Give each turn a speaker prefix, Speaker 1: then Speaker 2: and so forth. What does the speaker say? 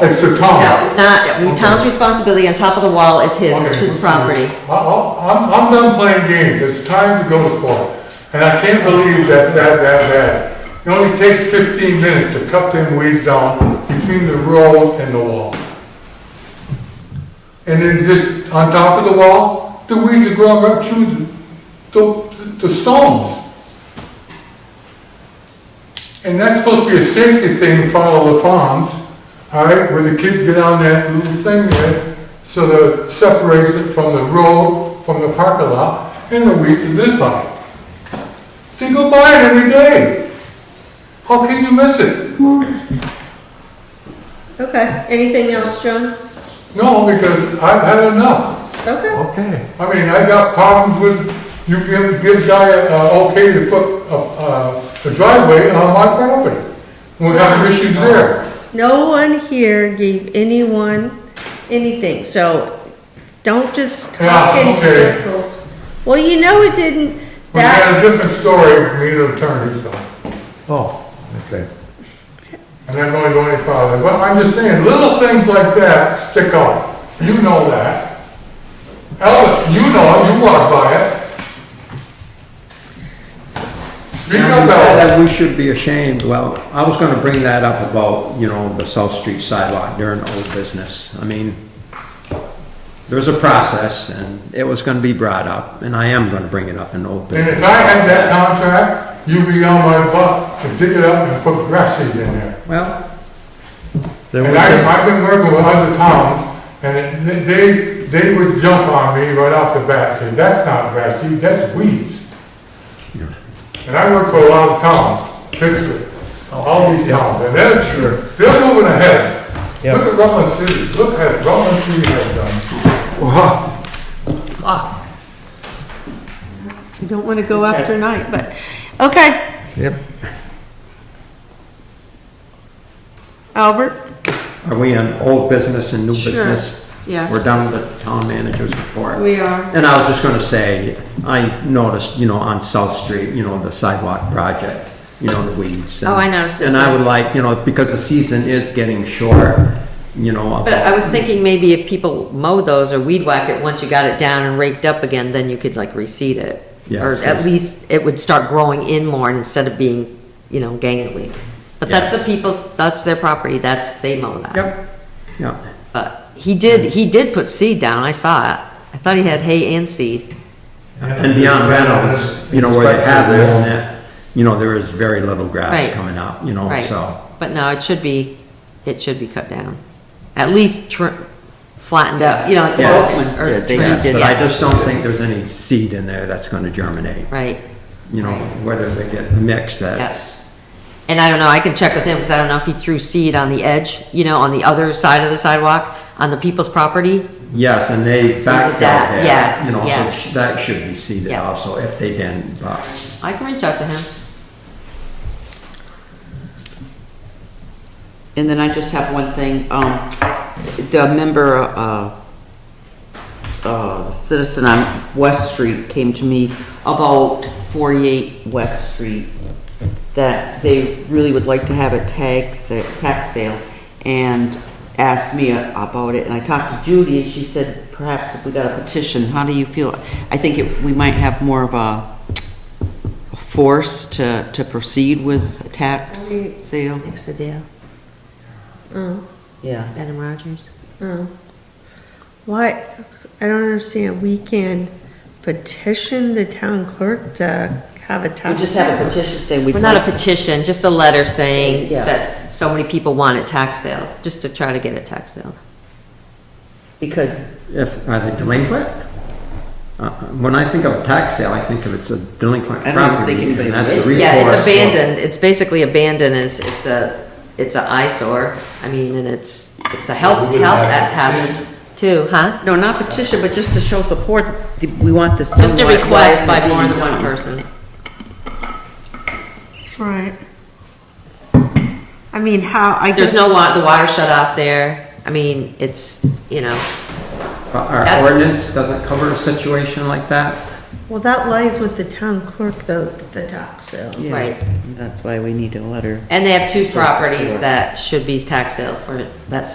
Speaker 1: It's the
Speaker 2: No,
Speaker 1: town.
Speaker 2: it's not, town's responsibility on top of the wall is his, it's
Speaker 1: Okay,
Speaker 2: his
Speaker 1: so-
Speaker 2: property.
Speaker 1: I- I- I'm, I'm done playing games, it's time to go to court. And I can't believe that's that, that bad. It only takes fifteen minutes to cut them weeds down between the road and the wall. And then just on top of the wall, the weeds are growing right through the, the, the stones. And that's supposed to be a safety thing in front of all the farms, all right, where the kids get on that little thing there, so that it separates it from the road, from the parking lot, and the weeds are this high. They go by it every day. How can you miss it?
Speaker 3: Okay, anything else, John?
Speaker 1: No, because I've had enough.
Speaker 3: Okay,
Speaker 4: Okay.
Speaker 1: I mean, I got problems with, you give, give guy uh okay to put a, a- a driveway on my property. We're having issues there.
Speaker 3: no one here gave anyone anything, so don't just talk
Speaker 1: Yeah,
Speaker 3: in
Speaker 1: okay.
Speaker 3: circles. Well, you know it didn't,
Speaker 1: We
Speaker 3: that,
Speaker 1: had a different story with me and the attorney, so.
Speaker 4: Oh, okay.
Speaker 1: And I'm going to go any farther, but I'm just saying, little things like that stick out. You know that. Albert, you know it, you walk by it. Speak
Speaker 4: Now,
Speaker 1: up,
Speaker 4: you said
Speaker 1: Albert.
Speaker 4: that we should be ashamed, well, I was gonna bring that up about, you know, the South Street sidewalk during old business. I mean, there's a process, and it was gonna be brought up, and I am gonna bring it up in old
Speaker 1: And
Speaker 4: business.
Speaker 1: if I had that contract, you'd be on my butt to dig it up and put grass seed in there.
Speaker 4: Well, there
Speaker 1: And
Speaker 4: was a,
Speaker 1: I, I've been working with other towns, and it- they, they would jump on me right off the bat, say, that's not grass seed, that's weeds. And I work for a lot of towns, Pittsburgh, all these towns, and they're, they're moving ahead.
Speaker 4: Yep.
Speaker 1: Look at Rutland City, look at Rutland City has done.
Speaker 3: I don't wanna go after night, but, okay,
Speaker 4: Yep.
Speaker 3: Albert?
Speaker 4: are we on old business and new
Speaker 3: Sure.
Speaker 4: business?
Speaker 3: Yes.
Speaker 4: We're done with the town manager's report.
Speaker 3: We are.
Speaker 4: And I was just gonna say, I noticed, you know, on South Street, you know, the sidewalk project, you know, the weeds. and-
Speaker 2: Oh, I noticed it
Speaker 4: And I
Speaker 2: too.
Speaker 4: would like, you know, because the season is getting short, you know.
Speaker 2: But uh, I was thinking maybe if people mowed those or weed whacked it, once you got it down and raked up again, then you could like reseed it. Or
Speaker 4: Yes,
Speaker 2: at
Speaker 4: yes.
Speaker 2: least it would start growing in more instead of being, you know, gangly. But that's the
Speaker 4: Yes.
Speaker 2: people's, that's their property, that's, they mow that.
Speaker 4: Yep, yep.
Speaker 2: But he did, he did put seed down, I saw it. I thought he had hay and seed.
Speaker 4: And beyond Reynolds, you know, where they have their own net, you know, there is very little grass
Speaker 2: Right.
Speaker 4: coming up, you know,
Speaker 2: Right.
Speaker 4: so.
Speaker 2: But no, it should be, it should be cut down. At least tr- flattened out, you know, like the
Speaker 4: Yeah,
Speaker 2: old ones did, they
Speaker 4: yes,
Speaker 2: did,
Speaker 4: But I
Speaker 2: yes.
Speaker 4: just don't think there's any seed in there that's gonna germinate,
Speaker 2: Right.
Speaker 4: you know,
Speaker 2: Right.
Speaker 4: whether they get a mix that's.
Speaker 2: Yes. And I don't know, I can check with him, because I don't know if he threw seed on the edge, you know, on the other side of the sidewalk, on the people's property.
Speaker 4: Yes, and they
Speaker 2: that,
Speaker 4: backfilled that.
Speaker 2: yes,
Speaker 4: You know, so
Speaker 2: yes.
Speaker 4: sh- that should be seeded
Speaker 2: Yeah.
Speaker 4: also if they didn't, but,
Speaker 2: I can reach out to him.
Speaker 5: And then I just have one thing, um, the member, uh, uh, citizen on West Street came to me about forty-eight West Street, that they really would like to have a tag sa- tax sale, and asked me about it, and I talked to Judy, and she said, perhaps if we got a petition, how do you feel? I think it, we might have more of a force to, to proceed with a tax
Speaker 3: Okay.
Speaker 5: sale.
Speaker 2: Next to Dale,
Speaker 3: Oh,
Speaker 5: Yeah.
Speaker 2: Adam Rogers.
Speaker 3: oh. Why, I don't understand, we can petition the town clerk to have a
Speaker 5: We
Speaker 3: tax.
Speaker 5: just have a petition saying we'd
Speaker 2: Well, not a
Speaker 5: like to.
Speaker 2: petition, just a letter saying
Speaker 5: Yeah.
Speaker 2: that so many people want a tax sale, just to try to get a tax sale.
Speaker 5: Because,
Speaker 4: if, are they delinquent? Uh, When I think of tax sale, I think of it's a delinquent
Speaker 5: I don't even
Speaker 4: property.
Speaker 5: think anybody
Speaker 4: and that's a
Speaker 5: lives there.
Speaker 2: Yeah, it's
Speaker 4: recourse for-
Speaker 2: abandoned, it's basically abandoned, it's, it's a, it's a eyesore, I mean, and it's, it's a health,
Speaker 1: We would
Speaker 2: health
Speaker 1: have to
Speaker 2: hazard too, huh?
Speaker 5: no, not petition, but just to show support, that we want this.
Speaker 2: Just a
Speaker 5: done right.
Speaker 2: request
Speaker 5: Why
Speaker 2: by
Speaker 5: isn't it
Speaker 2: more than
Speaker 5: being
Speaker 2: one
Speaker 5: done?
Speaker 2: person.
Speaker 3: Right. I mean, how, I guess.
Speaker 2: There's no wa, the water shut off there, I mean, it's, you know,
Speaker 4: But Our
Speaker 2: That's-
Speaker 4: ordinance doesn't cover a situation like that?
Speaker 3: Well, that lies with the town clerk, though, the tax sale.
Speaker 5: Yeah,
Speaker 2: Right.
Speaker 5: That's why we need a letter.
Speaker 2: and they have two properties that should be tax sale for that